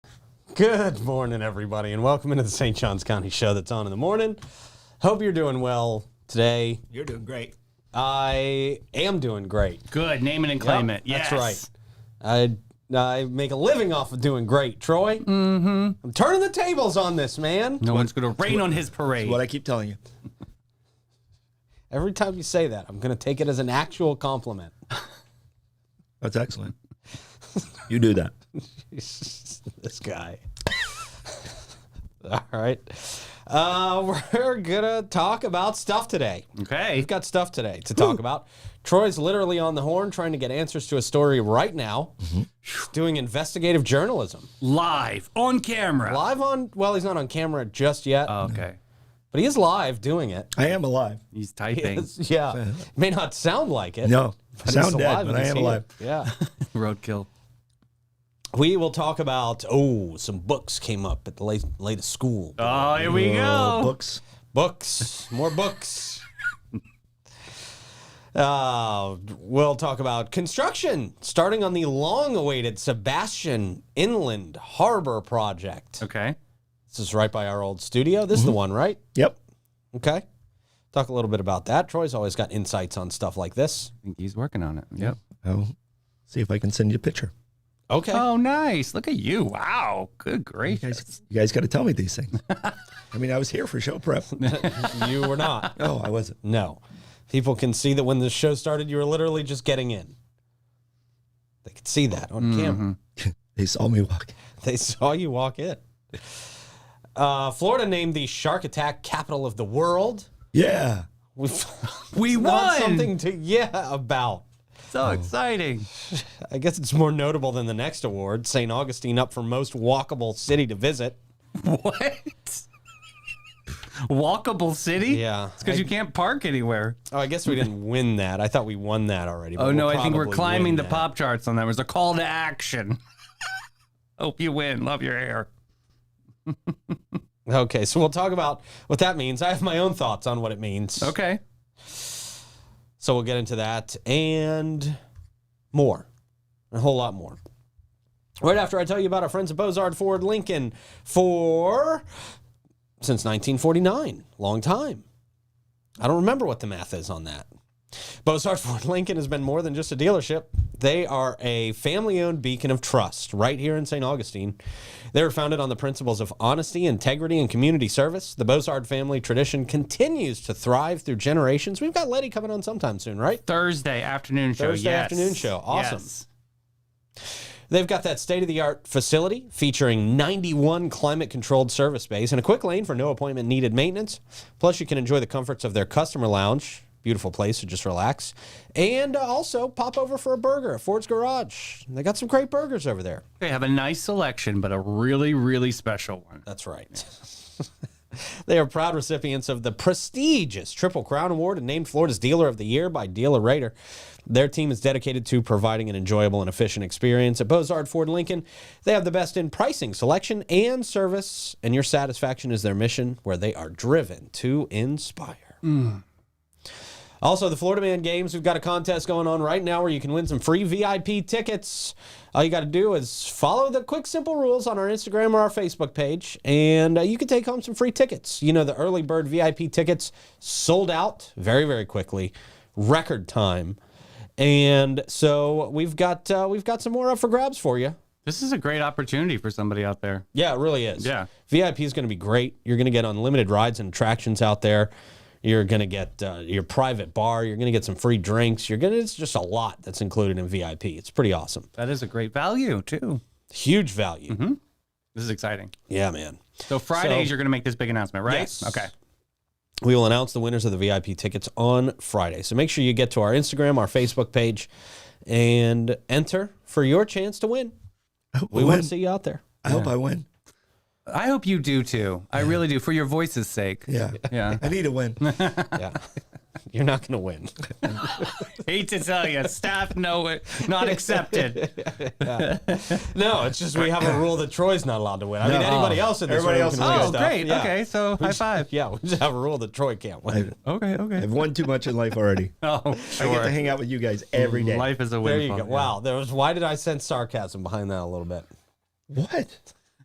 Good morning, everybody, and welcome into the St. Johns County Show that's on in the morning. Hope you're doing well today. You're doing great. I am doing great. Good. Name it and claim it. Yes. That's right. I I make a living off of doing great, Troy. Mm-hmm. I'm turning the tables on this, man. No one's going to rain on his parade. What I keep telling you. Every time you say that, I'm going to take it as an actual compliment. That's excellent. You do that. this guy. All right. Uh, we're going to talk about stuff today. Okay. We've got stuff today to talk about. Troy's literally on the horn trying to get answers to a story right now. Mm-hmm. He's doing investigative journalism. Live on camera. Live on, well, he's not on camera just yet, Uh. Oh, Okay. but he is live doing it. I am alive. He's typing. Yeah. May not sound like it. No. but he's Sound dead, alive but and I he's am here. alive. Yeah. Roadkill. we will talk about, oh, some books came up at the late, latest school. Oh, here we Uh, go. books. Books, more books. Uh, we'll talk about construction starting on the long awaited Sebastian Inland Harbor Project. Okay. This is right by our old studio. This is Mm-hmm. the one, right? Yep. Okay. Talk a little bit about that. Troy's always got insights on stuff like this. I think he's working on it. Yep. I'll see if I can send you a picture. Okay. Oh, nice. Look at you. Wow. Good You gracious. guys, you guys got to tell me these things. I mean, I was here for show prep. You were not. Oh, I wasn't. No. People can see that when the show started, you were literally just getting in. They could see that Mm-hmm. on camera. They saw me walk. They saw you walk in. Uh, Florida named the shark attack capital of the world. Yeah. We've We found won. something to yeah about. So exciting. I guess it's more notable than the next award. St. Augustine up for most walkable city to visit. What? Walkable city? Yeah. It's because you can't park anywhere. Oh, I guess we didn't win that. I thought we won that already. but Oh, we'll no. I think we're probably climbing win the that. pop charts on that. It was a call to action. Hope you win. Love your hair. Okay, so we'll talk about what that means. I have my own thoughts on what it means. Okay. So we'll get into that and more, a whole lot more. Right after I tell you about our friends at Bozard Ford Lincoln for since 1949, long time. I don't remember what the math is on that. Bozard Ford Lincoln has been more than just a dealership. They are a family owned beacon of trust right here in St. Augustine. They were founded on the principles of honesty, integrity, and community service. The Bozard family tradition continues to thrive through generations. We've got Letty coming on sometime soon, right? Thursday afternoon show. Thursday yes. afternoon show. Awesome. Yes. They've got that state of the art facility featuring 91 climate controlled service bays and a quick lane for no appointment needed maintenance. Plus, you can enjoy the comforts of their customer lounge. Beautiful place to just relax. And uh, also pop over for a burger at Ford's Garage. They got some great burgers over there. They have a nice selection, but a really, really special one. That's right. they are proud recipients of the prestigious Triple Crown Award and named Florida's Dealer of the Year by Dealer Rater. Their team is dedicated to providing an enjoyable and efficient experience at Bozard Ford Lincoln. They have the best in pricing, selection, and service, and your satisfaction is their mission, where they are driven to inspire. Also, the Florida Man Games, we've got a contest going on right now where you can win some free VIP tickets. All you got to do is follow the quick, simple rules on our Instagram or our Facebook page, and uh, you can take home some free tickets. You know, the early bird VIP tickets sold out very, very quickly, record time. And so we've got uh, we've got some more up for grabs for you. This is a great opportunity for somebody out there. Yeah, it really is. Yeah. VIP is going to be great. You're going to get unlimited rides and attractions out there. You're going to get uh, your private bar. You're going to get some free drinks. You're going to, it's just a lot that's included in VIP. It's pretty awesome. That is a great value, too. Huge value. This is exciting. Yeah, man. So, Fridays, So- you're going to make this big announcement, right? Yes. Okay. We will announce the winners of the VIP tickets on Friday. So make sure you get to our Instagram, our Facebook page, and enter for your chance to win. I hope, We I, want win. to see you out there. I, hope I win. I hope you do, too. I really do, for your voice's sake. Yeah. Yeah. I need a win. Yeah. You're not going to win. Hate to tell you, staff no, not accepted. No, it's just we have a rule that Troy's not allowed to win. I mean, anybody else in this Everybody room else can is win good. Oh, stuff. great. Yeah. Okay. So, high five. Yeah, we just have a rule that Troy can't win. Okay. Okay. I've won too much in life already. Oh, I get to sure. hang out with you guys every day. Life is a There windfall. you go. Wow, there was. Why did I sense sarcasm behind that a little bit? What?